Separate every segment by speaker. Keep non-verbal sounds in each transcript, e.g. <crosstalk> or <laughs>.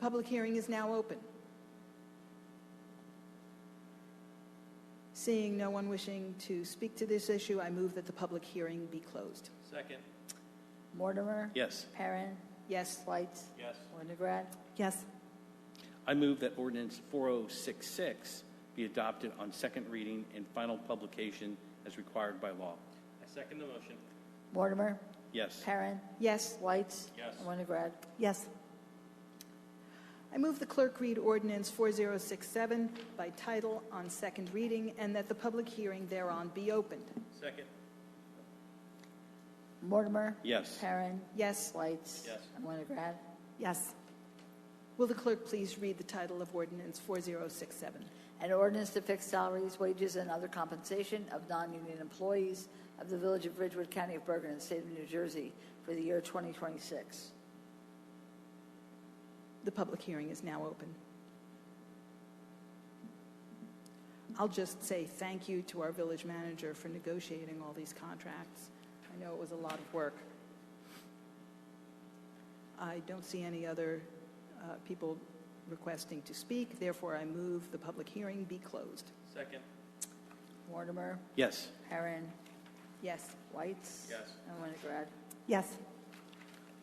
Speaker 1: Public hearing is now open. Seeing no one wishing to speak to this issue, I move that the public hearing be closed.
Speaker 2: Second.
Speaker 3: Mortimer?
Speaker 2: Yes.
Speaker 3: Perrin?
Speaker 1: Yes?
Speaker 3: Whites?
Speaker 2: Yes.
Speaker 3: Winograd?
Speaker 1: Yes.
Speaker 2: I move that ordinance 4066 be adopted on second reading and final publication as required by law. I second the motion.
Speaker 3: Mortimer?
Speaker 2: Yes.
Speaker 3: Perrin?
Speaker 1: Yes?
Speaker 3: Whites?
Speaker 2: Yes.
Speaker 3: Winograd?
Speaker 1: Yes. I move the clerk read ordinance 4067 by title on second reading and that the public hearing thereon be opened.
Speaker 2: Second.
Speaker 3: Mortimer?
Speaker 2: Yes.
Speaker 3: Perrin?
Speaker 1: Yes?
Speaker 3: Whites?
Speaker 2: Yes.
Speaker 3: Winograd?
Speaker 1: Yes. Will the clerk please read the title of ordinance 4067?
Speaker 3: An ordinance to fix salaries, wages, and other compensation of non-union employees of the Village of Ridgewood, County of Bergen, and State of New Jersey for the year 2026.
Speaker 1: The public hearing is now open. I'll just say thank you to our village manager for negotiating all these contracts. I know it was a lot of work. I don't see any other uh, people requesting to speak, therefore I move the public hearing be closed.
Speaker 2: Second.
Speaker 3: Mortimer?
Speaker 2: Yes.
Speaker 3: Perrin?
Speaker 1: Yes.
Speaker 3: Whites?
Speaker 2: Yes.
Speaker 3: And Winograd?
Speaker 1: Yes.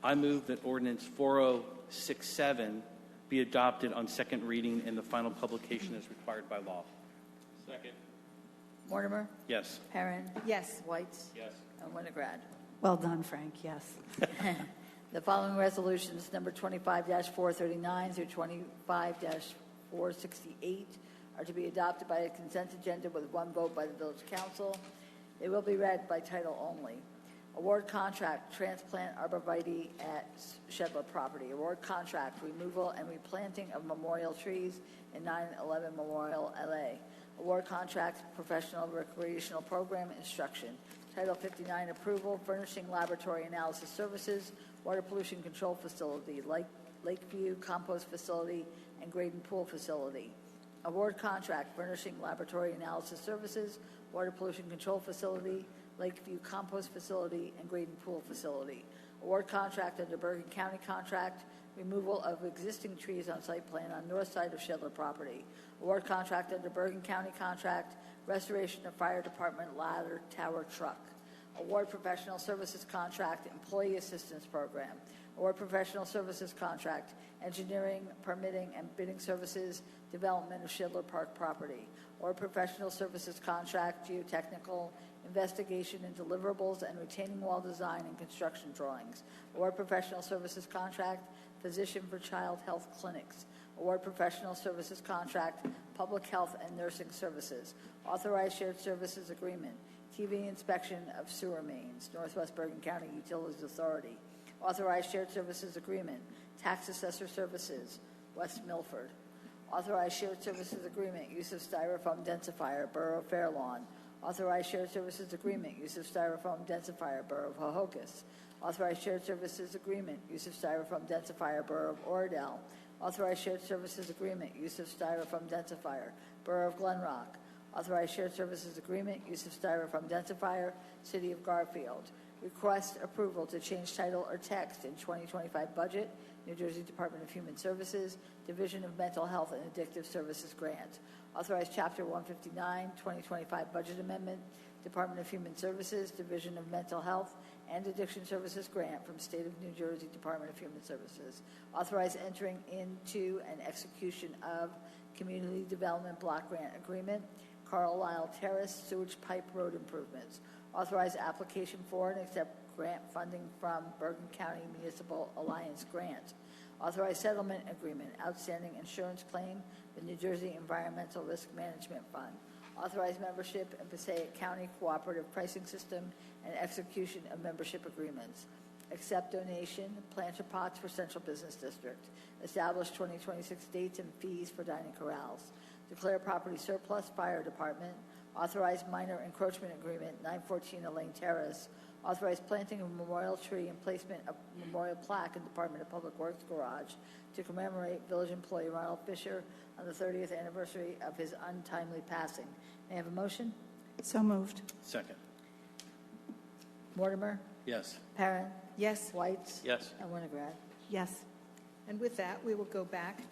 Speaker 2: I move that ordinance 4067 be adopted on second reading and the final publication as required by law. Second.
Speaker 3: Mortimer?
Speaker 2: Yes.
Speaker 3: Perrin?
Speaker 1: Yes.
Speaker 3: Whites?
Speaker 2: Yes.
Speaker 3: And Winograd?
Speaker 4: Well done, Frank, yes.
Speaker 3: <laughs> The following resolutions, number 25-439 through 25-468, are to be adopted by a consent agenda with one vote by the village council. They will be read by title only. Award contract, transplant arborvitae at Shedler property. Award contract, removal and replanting of memorial trees in 911 Memorial LA. Award contract, professional recreational program instruction. Title 59 approval, furnishing laboratory analysis services, water pollution control facility, Lake Lakeview compost facility, and Graden pool facility. Award contract, furnishing laboratory analysis services, water pollution control facility, Lakeview compost facility, and Graden pool facility. Award contract under Bergen County contract, removal of existing trees on site plan on north side of Shedler property. Award contract under Bergen County contract, restoration of fire department ladder tower truck. Award professional services contract, employee assistance program. Award professional services contract, engineering, permitting, and bidding services, development of Shidler Park property. Award professional services contract, geotechnical, investigation and deliverables, and retaining wall design and construction drawings. Award professional services contract, physician for child health clinics. Award professional services contract, public health and nursing services. Authorized shared services agreement, TV inspection of sewer mains, Northwest Bergen County Utilities Authority. Authorized shared services agreement, tax assessor services, West Milford. Authorized shared services agreement, use of styrofoam densifier, Borough of Fairlawn. Authorized shared services agreement, use of styrofoam densifier, Borough of Hohokus. Authorized shared services agreement, use of styrofoam densifier, Borough of Oradell. Authorized shared services agreement, use of styrofoam densifier, Borough of Glen Rock. Authorized shared services agreement, use of styrofoam densifier, City of Garfield. Request approval to change title or text in 2025 budget, New Jersey Department of Human Services, Division of Mental Health and Addictive Services Grant. Authorize Chapter 159, 2025 Budget Amendment, Department of Human Services, Division of Mental Health and Addiction Services Grant from State of New Jersey Department of Human Services. Authorize entering into and execution of Community Development Block Grant Agreement, Carlisle Terrace Sewage Pipe Road Improvements. Authorize application for and accept grant funding from Bergen County Municipal Alliance Grant. Authorize settlement agreement, outstanding insurance claim with New Jersey Environmental Risk Management Fund. Authorize membership in Passaic County Cooperative Pricing System and execution of membership agreements. Accept donation, planter pots for Central Business District. Establish 2026 dates and fees for dining corrals. Declare property surplus, fire department. Authorize minor encroachment agreement, 914 Elaine Terrace. Authorize planting of memorial tree and placement of memorial plaque in Department of Public Works garage to commemorate village employee Ronald Fisher on the 30th anniversary of his untimely passing. May I have a motion?
Speaker 4: So moved.
Speaker 2: Second.
Speaker 3: Mortimer,
Speaker 2: Yes.
Speaker 3: Perrin,
Speaker 1: Yes?
Speaker 3: Whites.
Speaker 2: Yes.
Speaker 3: And Winograd.
Speaker 4: Yes.
Speaker 1: I And with that, we will go back